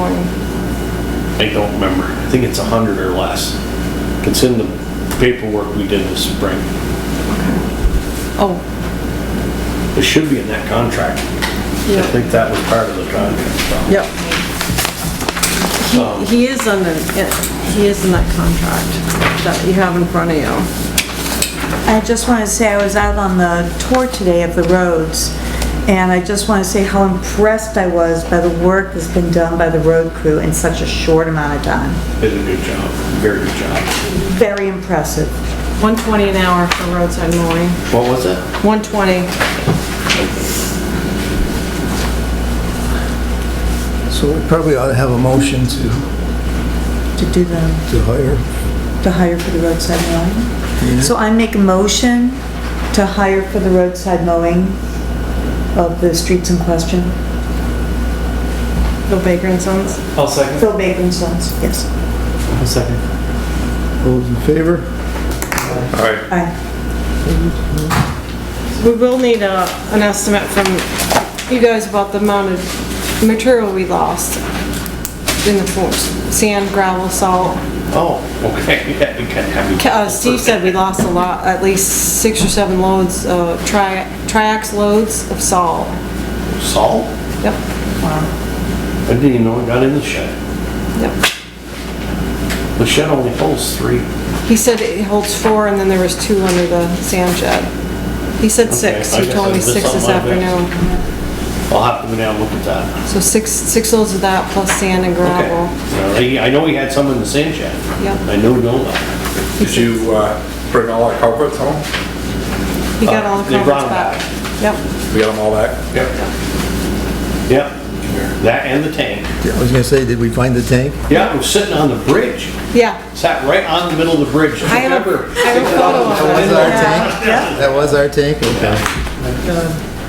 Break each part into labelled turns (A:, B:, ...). A: normally?
B: I don't remember. I think it's a hundred or less. It's in the paperwork we did this spring.
A: Oh,
B: It should be in that contract. I
A: Yeah.
B: think that was part of the contract. so.
A: yep. He- He is under, yeah, he is in that contract that you have in front of you.
C: I just want to say, I was out on the tour today of the roads, and I just want to say how impressed I was by the work that's been done by the road crew in such a short amount of time.
B: Did a good job, very good job.
C: Very impressive.
A: 120 an hour for roadside mowing,
B: What was it?
A: 120.
D: So we probably ought to have a motion to,
C: To do the,
D: to hire.
C: to hire for the roadside mowing. So I make a motion to hire for the roadside mowing of the streets in question.
A: Bill Baker and Sons.
E: I'll second.
C: Phil Baker and Sons, yes.
E: I'll second.
D: All Those in favor?
B: All right,
C: Aye.
A: We will need a, an estimate from you guys about the amount of material we lost in the force. Sand, gravel, salt.
B: oh, okay, yeah, we can have.
A: Ca- Uh, Steve said we lost a lot, at least six or seven loads, uh, tri, triax loads of salt.
B: Salt?
A: Yep,
B: I didn't even know it got in the shed.
A: yep.
B: The shed only holds three.
A: He said it holds four and then there was two under the sand shed. He said six,
B: I
A: he
B: guess
A: told me
B: I missed
A: six this
B: something like that.
A: afternoon.
B: I'll have to go down and look at that.
A: So six, six loads of that plus sand and
B: Okay.
A: gravel.
B: Well, he- I know he had some in the sand shed.
A: Yep.
B: I know, know that.
F: Did you uh, bring all our culprits home?
A: He got all the
B: They
A: culverts
B: brought them
A: back. Yep,
F: We got them all back? Yep.
B: Yep, that and the tank.
D: I was gonna say, did we find the tank?
B: Yeah, it was sitting on the bridge,
A: yeah.
B: sat right on the middle of the bridge.
A: I have a-
B: Remember,
A: I have a
B: picked it up
A: photo of
B: from
A: it.
B: the
D: That was
B: window.
D: our tank? That was our tank? Okay.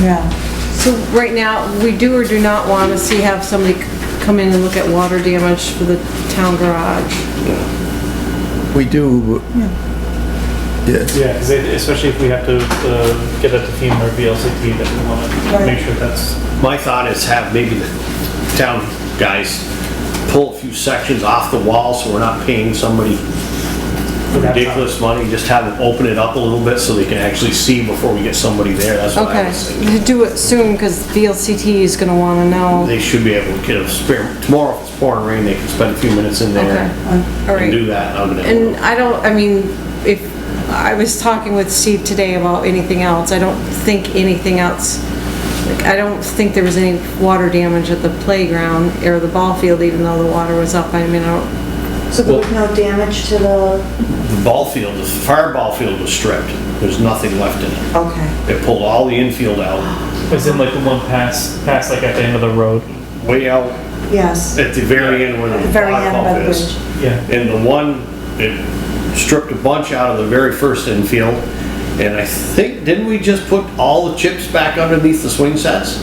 C: Yeah.
A: So right now, we do or do not want to see, have somebody c- come in and look at water damage for the town garage.
D: We do, yeah,
E: Yeah, because especially if we have to uh, get that to FEMA or VLCT, that we want to make sure that's,
B: My thought is have maybe the town guys pull a few sections off the wall so we're not paying somebody ridiculous money, just have them open it up a little bit so they can actually see before we get somebody there, that's what Oh, I
A: Okay,
B: was thinking.
A: do it soon because VLCT is going to want to know.
B: They should be able to get a spare, tomorrow if it's pouring rain, they can spend a few minutes in there
A: Okay, all
B: and do
A: right.
B: that. I'm gonna-
A: And I don't, I mean, if, I was talking with Steve today about anything else. I don't think anything else, like, I don't think there was any water damage at the playground or the ball field, even though the water was up. I mean, I don't,
C: So there was no damage to the,
B: The ball field, the fire ball field was stripped, there's nothing left in it.
C: okay.
B: They pulled all the infield out,
E: it's in like the one pass, pass like at the end of the road.
B: way out
C: Yes,
B: at the very end where the
C: very end
B: ball
C: by the
B: pump is.
C: bridge.
E: Yeah.
B: And the one, it stripped a bunch out of the very first infield. And I think, didn't we just put all the chips back underneath the swing sets?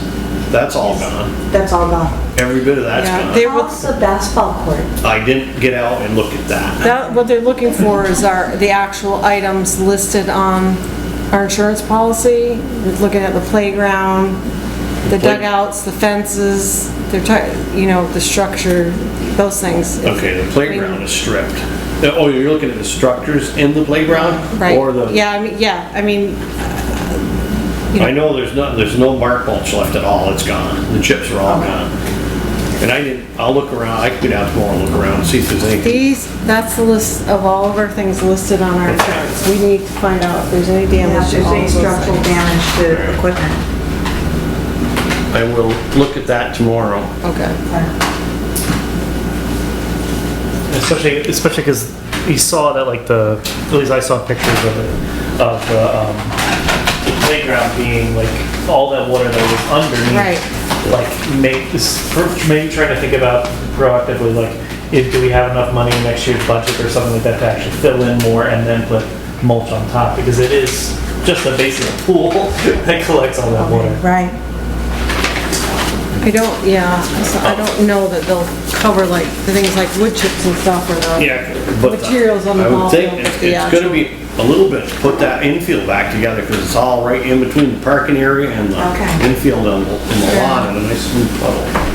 B: That's all gone.
C: that's all gone.
B: Every bit of that's
A: Yeah,
B: gone.
A: they-
C: How's the basketball court?
B: I didn't get out and look at that.
A: That, what they're looking for is our, the actual items listed on our insurance policy, They're looking at the playground, the
B: play-
A: dugouts, the fences, they're trying, you know, the structure, those things.
B: Okay, the playground is stripped. Uh, Oh, you're looking at the structures in the playground?
A: Right,
B: Or the,
A: yeah, I mean, yeah, I mean,
B: I know there's not, there's no bark mulch left at all, it's gone. The chips are all gone. And I didn't, I'll look around, I can get out tomorrow and look around and see if there's anything.
A: these, that's the list of all of our things listed on our insurance. We need to find out if there's any
C: Yeah,
A: damage
C: if
A: to
C: there's
A: all
C: any
A: of those
C: structural
A: things.
C: damage to equipment.
B: I will look at that tomorrow.
A: Okay,
E: Especially, especially because we saw that like the, at least I saw pictures of it, of the um, the playground being like, all that water that was
A: Right.
E: underneath. Like make this, maybe trying to think about proactively, like, if, do we have enough money in next year's budget or something like that to actually fill in more and then put mulch on top? Because it is just a basic pool that collects all that water.
C: Right.
A: I don't, yeah, so I don't know that they'll cover like, the things like wood chips and stuff or not.
B: Yeah, but.
A: Materials on the
B: I would
A: wall,
B: think
A: yeah.
B: It's it's gonna be a little bit, to put that infield back together, because it's all right in between the parking area and
C: Okay.
B: the infield and the and the
A: Yeah.
B: lot, and a nice smooth puddle.